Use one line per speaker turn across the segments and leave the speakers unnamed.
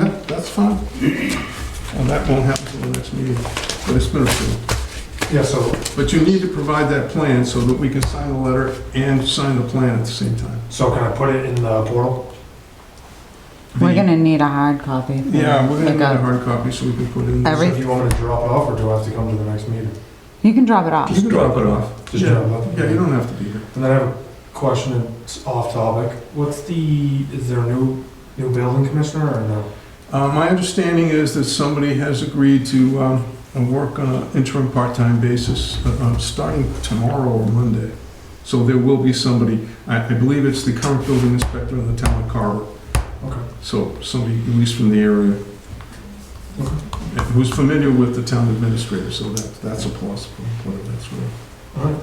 that's fine. And that won't happen till the next meeting, but it's been approved.
Yeah, so,
But you need to provide that plan so that we can sign the letter and sign the plan at the same time.
so can I put it in the portal?
We're gonna need a hard copy. for-
Yeah, we're gonna
like
need
a-
a hard copy so we can put it in.
Every-
So do you want me to drop it off, or do I have to come to the next meeting?
You can drop it off.
You can drop it off.
Just
Yeah.
drop it off?
Yeah, you don't have to be here.
And then I have a question, it's off topic. What's the, is there a new, new building commissioner, or no?
Uh, My understanding is that somebody has agreed to um, work on an interim part-time basis, uh, uh, starting tomorrow or Monday. So there will be somebody, I I believe it's the current building inspector in the town of Carver.
Okay.
So somebody at least from the area
Okay.
uh, who's familiar with the town administrator, so that, that's a plus, whatever that's worth.
All right.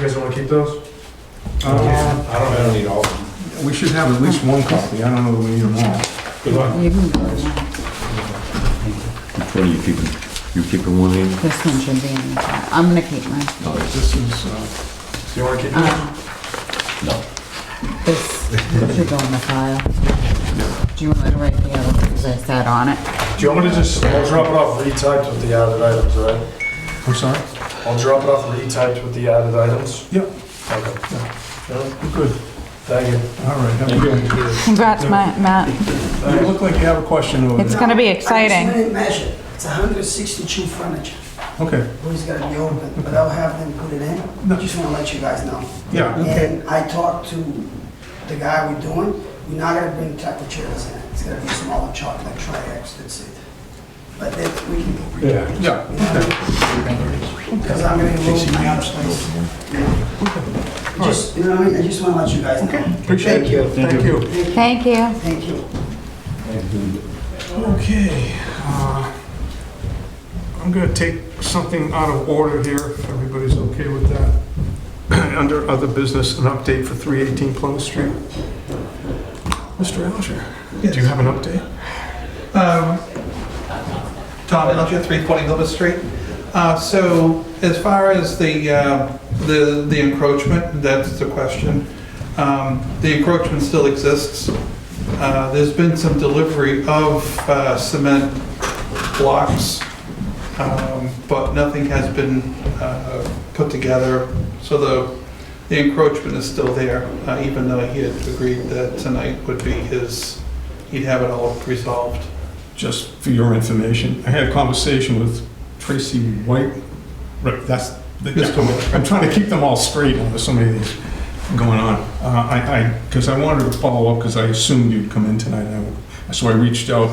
You guys wanna keep those?
Uh,
I don't, I don't need all of them.
We should have at least one copy, I don't know that we need them all.
Good luck.
You can go now.
Which one are you keeping? You keeping one in?
This one should be in the front. I'm gonna keep mine.
No, it's-
This is, uh,
Do you wanna keep them?
Um,
no.
This should go in the file. Do you want me to write the other because I sat on it?
Do you want me to just, I'll drop it off retyped with the added items, all right?
I'm sorry?
I'll drop it off retyped with the added items?
Yep.
Okay. Yeah,
We're Good,
Thank you.
all right. have a good one.
Congrats, Matt. Matt.
You look like you have a question over
It's
there.
gonna be
I
exciting.
just measure, it's 162 frontage,
Okay,
always gotta be open, but I'll have them put it in,
No.
just wanna let you guys know.
yeah, okay.
And I talked to the guy we're doing, we're not gonna bring taco chairs in, it's gonna be smaller chocolate triax, that's it. But then we can go.
Yeah.
Yeah,
Because I'm gonna move my other place. Just, you know what I mean, I just wanna let you guys know.
appreciate
Thank you.
it. Thank you.
Thank you.
Thank you.
Okay, uh, I'm going to take something out of order here, if everybody's okay with that. Under other business, an update for 318 Plymouth Street. Mr. Alger, do you have an update?
Um, Tom, I'm at 320 Plymouth Street. Uh, So as far as the, uh, the the encroachment, that's the question. Um, The encroachment still exists. Uh, There's been some delivery of uh, cement blocks, um, but nothing has been uh, put together. So the, the encroachment is still there, uh, even though he had agreed that tonight would be his, he'd have it all resolved.
Just for your information, I had a conversation with Tracy White. Right, that's,
Mr. White.
I'm trying to keep them all straight on so many of these going on. Uh, I, I, because I wanted to follow up, because I assumed you'd come in tonight. I- So I reached out,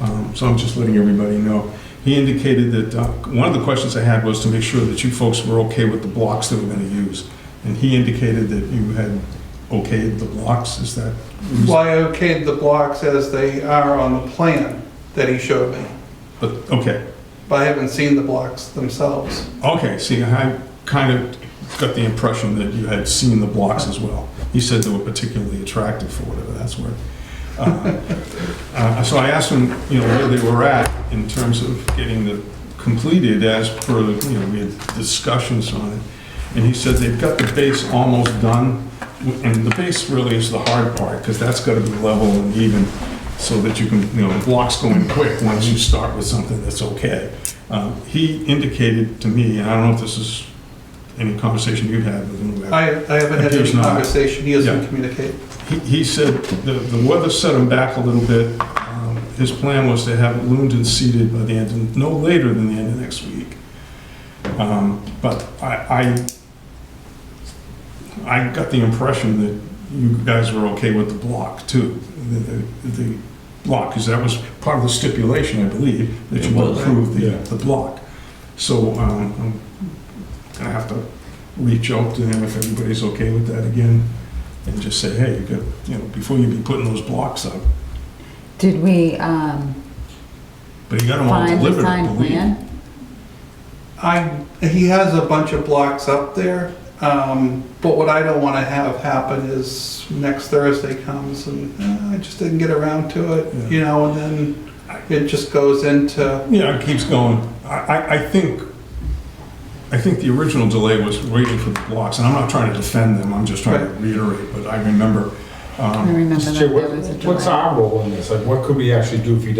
um, so I'm just letting everybody know. He indicated that, uh, one of the questions I had was to make sure that you folks were okay with the blocks that we're going to use. And he indicated that you had okayed the blocks, is that?
Well, I okayed the blocks as they are on the plan that he showed me,
But, okay.
but I haven't seen the blocks themselves.
Okay, see, I kind of got the impression that you had seen the blocks as well. He said they were particularly attractive for whatever that's worth. Uh, uh, So I asked him, you know, where they were at in terms of getting the completed as per, the you know, we had discussions on it. And he said they've got the base almost done, and the base really is the hard part, because that's got to be level and even, so that you can, you know, the blocks go in quick once you start with something that's okay. Um, He indicated to me, and I don't know if this is any conversation you had with him.
I, I haven't had any
He's not.
conversation, he
Yeah.
hasn't communicated.
He- He said the the weather set him back a little bit. Um, His plan was to have it loomed and seeded by the end, of- no later than the end of next week. Um, But I, I- I got the impression that you guys were okay with the block too, the- the the block, because that was part of the stipulation, I believe, that
It
you
was,
approved the
yeah.
the block. So um, I'm gonna have to reach out to him if everybody's okay with that again and just say, hey, you got, you know, before you be putting those blocks up.
Did we, um,
But you got them all
find the
delivered, I
signed
believe.
plan?
I, he has a bunch of blocks up there, um, but what I don't want to have happen is next Thursday comes and "Ah, I just didn't get around to
Yeah.
it, you know, and then it just goes into,
Yeah, it keeps going. I, I, I think, I think the original delay was waiting for the blocks, and I'm not trying to defend them, I'm just trying to reiterate, but I remember, um,
I remember
Mr.
that
Chair,
there was a
what- What's
delay.
our role in this? Like, what could we actually do if he